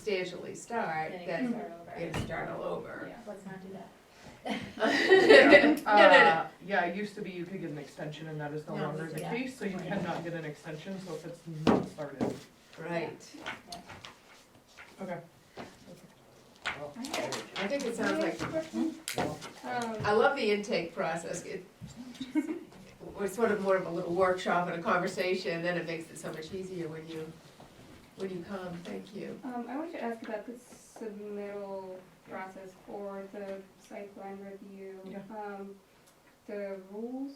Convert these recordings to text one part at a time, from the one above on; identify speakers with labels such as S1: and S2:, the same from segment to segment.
S1: substantially start,
S2: Then it
S1: then
S2: can start over.
S1: you start all over.
S2: Yeah, let's not do that.
S1: No, no, no.
S3: Uh, Yeah, it used to be you could get an extension and that is no
S1: No,
S3: longer the
S2: yeah.
S3: case, so you cannot get an extension, so if it's not started.
S1: Right.
S3: Okay.
S1: I think it sounds like, I
S2: Um,
S1: love the intake process. It- It's sort of more of a little workshop and a conversation, then it makes it so much easier when you, when you come. Thank you.
S4: Um, I wanted to ask about the submittal process for the site plan review.
S3: Yeah.
S4: Um, the rules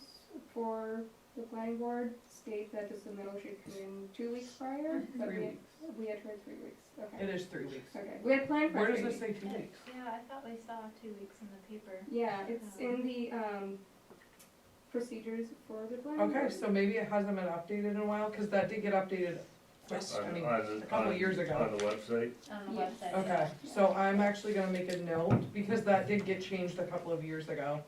S4: for the planning board state that the submittal should come in two weeks prior, but
S3: Mm-hmm. Three
S4: we,
S3: weeks.
S4: we had heard three weeks,
S3: It
S4: okay.
S3: is three weeks.
S4: Okay, we had planned for
S3: Where
S4: three
S3: does
S4: weeks.
S3: this say two weeks?
S2: Yeah, I thought we saw two weeks in the paper.
S4: Yeah, it's
S3: Uh-huh.
S4: in the, um, procedures for the planning board.
S3: Okay, so maybe it hasn't been updated in a while, cause that did get updated, quick, I
S5: On,
S3: mean,
S5: on,
S3: a couple
S5: on-
S3: years ago.
S5: On the website,
S2: On the
S4: Yeah.
S2: website.
S3: Okay,
S2: yeah.
S3: so I'm actually gonna make a note, because that did get changed a couple of years ago.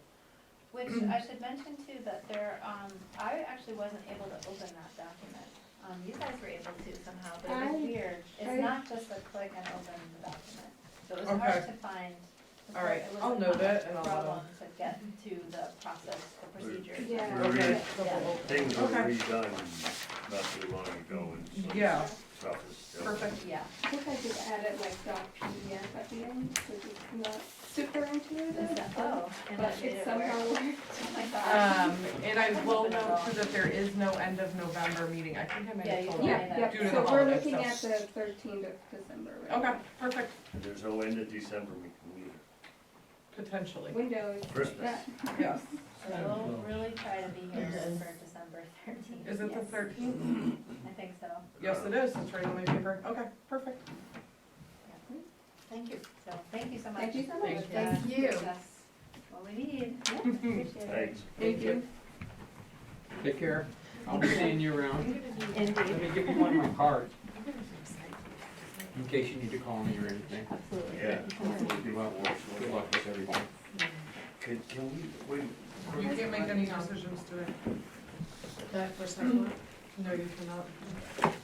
S2: Which I should mention too, that there, um, I actually wasn't able to open that document. Um, you guys were able to somehow, but it was
S4: I-
S2: weird.
S4: I-
S2: It's not just a click and open the document. So it was
S3: Okay.
S2: hard to find. it was
S3: All right,
S2: a-
S3: I'll note it and I'll, uh,
S2: It was a problem to get to the process, the procedure.
S4: Yeah.
S3: Okay.
S2: Yeah.
S5: things were
S3: Okay.
S5: redone not too long ago and some
S3: Yeah,
S5: stuff is still.
S3: perfect.
S2: Yeah.
S4: I think I just added like dot PDF at the end, which is not super intuitive,
S2: Is that- Oh, and
S4: but
S2: that made
S4: it
S2: it work.
S4: somehow worked.
S2: Oh my gosh.
S3: Um, and I will note too that there is no end of November meeting, I think I might
S2: Yeah,
S3: have
S2: you
S3: told
S2: did.
S3: you.
S4: Yeah,
S2: Due
S3: to
S4: yeah,
S3: the
S4: so we're
S3: holiday
S4: looking at
S3: stuff.
S4: the thirteenth of December, right?
S3: Okay, perfect,
S5: And There's no end of December we can meet.
S3: potentially,
S4: Windows.
S5: Christmas.
S3: yeah.
S2: So we'll really try to be here just for December thirteenth.
S3: Is it the
S4: Yes.
S3: thirteenth?
S2: I think so.
S3: Yes, it is, it's right on my paper, okay, perfect.
S2: Yeah. Thank you. So, thank you so much.
S4: Thank you so much.
S3: Thank
S2: Uh,
S1: Thank you.
S2: gives us What we need. Yeah,
S3: Hmm.
S2: appreciate it.
S5: Thanks.
S4: Thank you.
S6: Take care. I'll be seeing you around. Let
S2: Indeed,
S6: me give you one of my cards in case you need to call me or anything.
S2: absolutely.
S5: Yeah.
S6: You're welcome. Good luck with everything.
S5: Can, can we, wait,
S3: You can't make any decisions today.
S1: That for someone.
S3: No, you cannot.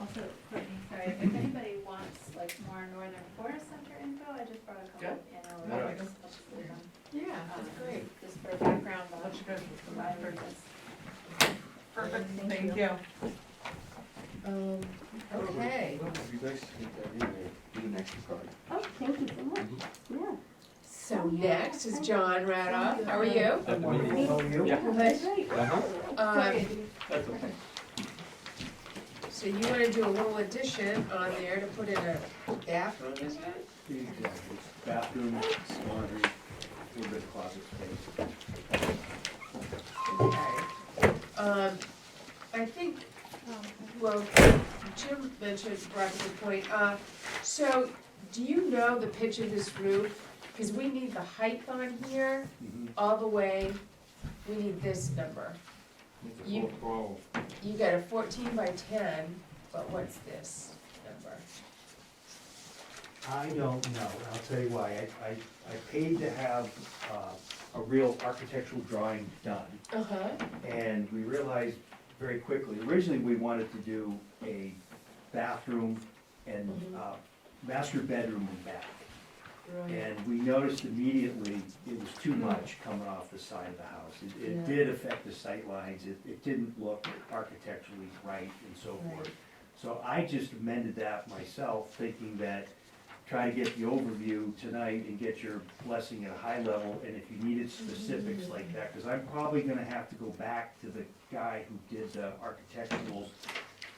S2: Also, Courtney, sorry, if anybody wants like more Northern Forest Center info, I just brought a
S3: Yeah.
S2: couple in
S3: Yeah.
S2: over. That's
S1: Yeah, Mm-hmm. that's great.
S2: Um, Just for background,
S3: That's
S2: knowledge.
S3: good.
S2: the library is-
S3: Perfect,
S1: Thank
S3: thank
S1: you.
S3: you.
S1: Um, okay,
S5: it'd be nice to get that in there.
S6: Do the next card.
S4: Oh, thank you so much. Yeah.
S1: so next is John Radoff. How are you?
S6: At the meeting. Yeah.
S4: That's great.
S6: Uh-huh.
S1: Um,
S6: That's okay.
S1: so you wanna do a little addition on there to put in a bathroom, is it?
S7: Exactly. Bathroom, laundry, a little bit of closet space.
S1: Okay. Um, I think, well, Jim mentioned, brought to the point, uh, so do you know the pitch of this roof? Cause we need the height on here,
S7: Mm-hmm.
S1: all the way, we need this number.
S6: It's
S1: You-
S6: a twelve.
S1: You got a fourteen by ten, but what's this number?
S7: I don't know, and I'll tell you why. I, I, I paid to have, uh, a real architectural drawing done.
S1: Uh-huh.
S7: And we realized very quickly, originally, we wanted to do a bathroom and, uh, master bedroom and bath.
S1: Right.
S7: And we noticed immediately it was too much coming off the side of the house. It,
S1: Yeah.
S7: it did affect the sightlines, it, it didn't look architecturally right and so forth.
S1: Right.
S7: So I just amended that myself, thinking that, try to get the overview tonight and get your blessing at a high level, and if you needed specifics like that, because I'm probably gonna have to go back to the guy who did the architecturals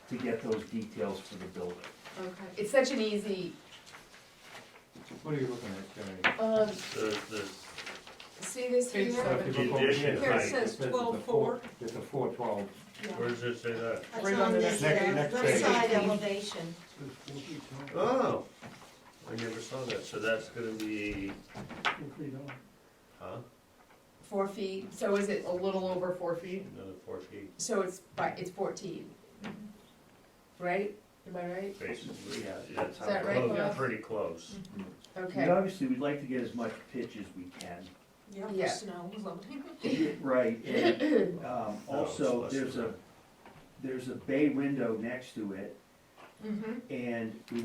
S7: to get those details for the building.
S1: Okay. It's such an easy,
S6: What are you looking at, Jerry?
S1: um,
S5: The, the,
S1: see this
S3: Page
S1: here?
S6: If you look over
S5: Condition
S6: here,
S5: height.
S6: it says it's a
S8: 12.4.
S6: It's a four twelve.
S5: where does it say that?
S3: Right on the next-
S6: Next- next
S8: Left
S6: page.
S8: side elevation.
S5: Oh, I never saw that, so that's gonna be, huh,
S1: Four feet, so is it,
S3: A little over four feet.
S5: another four feet,
S1: so it's by, it's fourteen? Right? Am I right?
S5: basically,
S7: Yeah.
S5: that's how
S1: Is that right,
S5: close,
S1: Bob?
S5: pretty close.
S7: We
S1: Okay,
S7: obviously, we'd like to get as much pitch as we can,
S1: Yeah.
S8: Yeah, snow loading.
S7: Right, and, um,
S5: No, it's
S7: also,
S5: less
S7: there's
S5: than
S7: a, there's a bay window next to it,
S1: mm-hmm.
S7: and we